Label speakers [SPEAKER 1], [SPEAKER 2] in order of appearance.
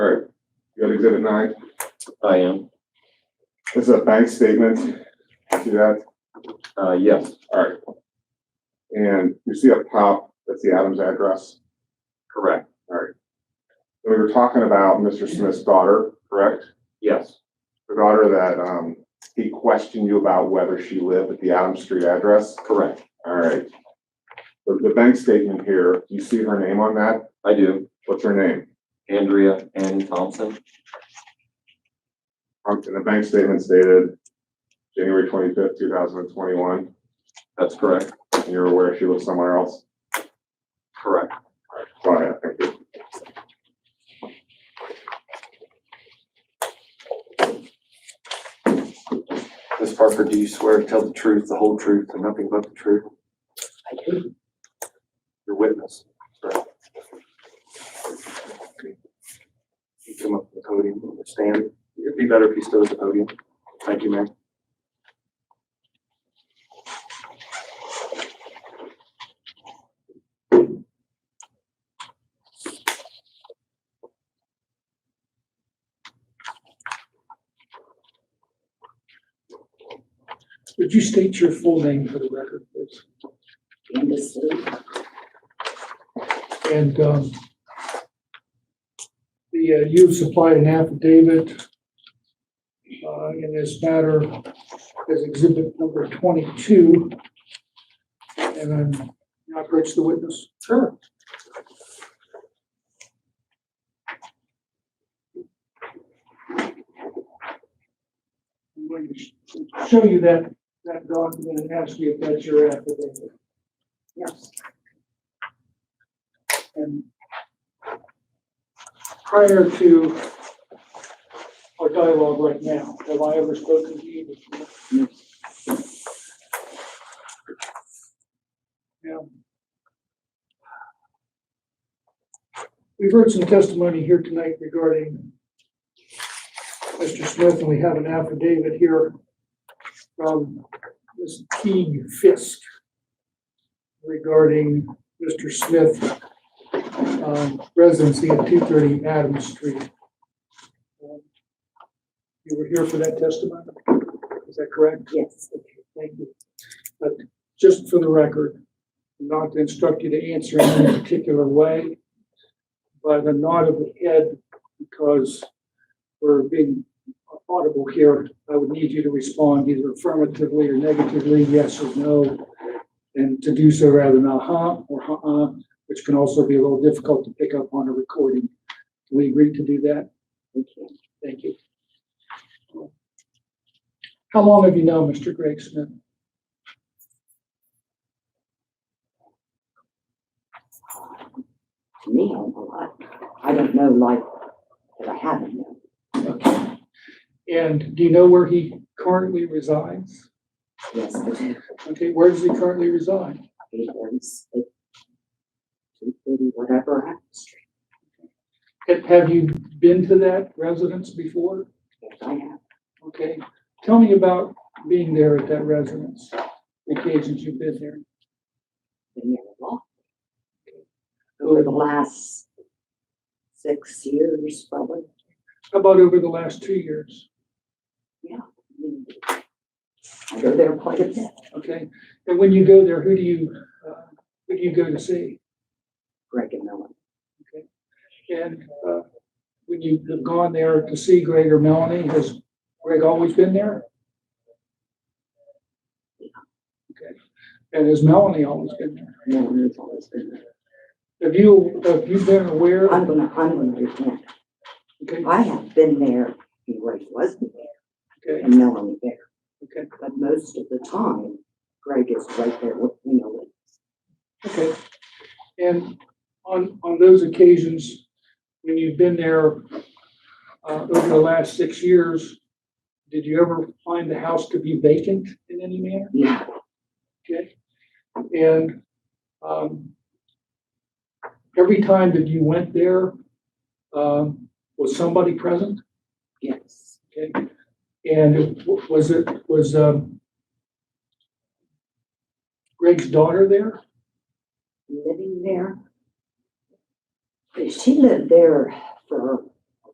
[SPEAKER 1] Alright, you got exhibit nine,
[SPEAKER 2] I am,
[SPEAKER 1] this is a bank statement, see that,
[SPEAKER 2] uh, yes,
[SPEAKER 1] alright. And you see up top, that's the Adams address,
[SPEAKER 2] correct,
[SPEAKER 1] we were talking about Mr. Smith's daughter, correct?
[SPEAKER 2] yes,
[SPEAKER 1] The daughter that, um, he questioned you about whether she lived at the Adams Street address,
[SPEAKER 2] correct,
[SPEAKER 1] alright. The, the bank statement here, you see her name on that,
[SPEAKER 2] I do.
[SPEAKER 1] what's her name?
[SPEAKER 2] Andrea Ann Thompson,
[SPEAKER 1] Um, and the bank statement stated January twenty-fifth, two thousand and twenty-one,
[SPEAKER 2] that's correct,
[SPEAKER 1] and you're aware she lives somewhere else?
[SPEAKER 2] correct.
[SPEAKER 1] Go ahead, thank you.
[SPEAKER 2] Ms. Parker, do you swear to tell the truth, the whole truth, and nothing but the truth? I do. Your witness, correct? You come up to the podium, and stand, it'd be better if you stood at the podium. Thank you, ma'am.
[SPEAKER 3] Would you state your full name for the record, please?
[SPEAKER 4] Candace Lee,
[SPEAKER 3] And, um, the, uh, you've supplied an affidavit, uh, in this matter as exhibit number twenty-two. And I'm, can I approach the witness? Sure. I'm going to show you that, that document and ask you if that's your affidavit.
[SPEAKER 4] yes.
[SPEAKER 3] And prior to our dialogue right now, have I ever spoken to you before? Now, We've heard some testimony here tonight regarding Mr. Smith, and we have an affidavit here from Ms. Teague Fisk regarding Mr. Smith um, residency at two thirty Adams Street. Um, You were here for that testimony, is that correct?
[SPEAKER 4] Yes.
[SPEAKER 3] Thank you. But just for the record, not to instruct you to answer in any particular way, but a nod of the head, because we're being audible here, I would need you to respond either affirmatively or negatively, yes or no. And to do so rather than uh-huh or uh-uh, which can also be a little difficult to pick up on a recording. Do we agree to do that? Okay. Thank you. How long have you known Mr. Greg Smith?
[SPEAKER 4] Me, I'm alive. I don't know life that I haven't known.
[SPEAKER 3] Okay. And do you know where he currently resides?
[SPEAKER 4] Yes, I do.
[SPEAKER 3] Okay, where does he currently reside?
[SPEAKER 4] He lives at two thirty, whatever, Adams Street.
[SPEAKER 3] Have- Have you been to that residence before?
[SPEAKER 4] Yes, I have.
[SPEAKER 3] Okay, tell me about being there at that residence, the occasions you've been there.
[SPEAKER 4] Been there a lot. Over the last six years, probably.
[SPEAKER 3] How about over the last two years?
[SPEAKER 4] I go there quite a bit.
[SPEAKER 3] Okay, and when you go there, who do you, uh, who do you go to see?
[SPEAKER 4] Greg and Melanie.
[SPEAKER 3] And uh, when you've gone there to see Greg or Melanie, has Greg always been there? Okay, and has Melanie always been there?
[SPEAKER 4] Melanie's always been there.
[SPEAKER 3] Have you, have you been aware?
[SPEAKER 4] I'm gonna, I'm gonna repent.
[SPEAKER 3] Okay,
[SPEAKER 4] I have been there, and Greg wasn't there,
[SPEAKER 3] okay,
[SPEAKER 4] and Melanie there.
[SPEAKER 3] okay,
[SPEAKER 4] But most of the time, Greg is right there with, you know,
[SPEAKER 3] okay. And on, on those occasions, when you've been there uh, over the last six years, did you ever find the house to be vacant in any manner?
[SPEAKER 4] yeah,
[SPEAKER 3] Okay, and, um, every time that you went there, um, was somebody present?
[SPEAKER 4] yes,
[SPEAKER 3] Okay, and it- was it, was, um, Greg's daughter there?
[SPEAKER 4] living there. She lived there for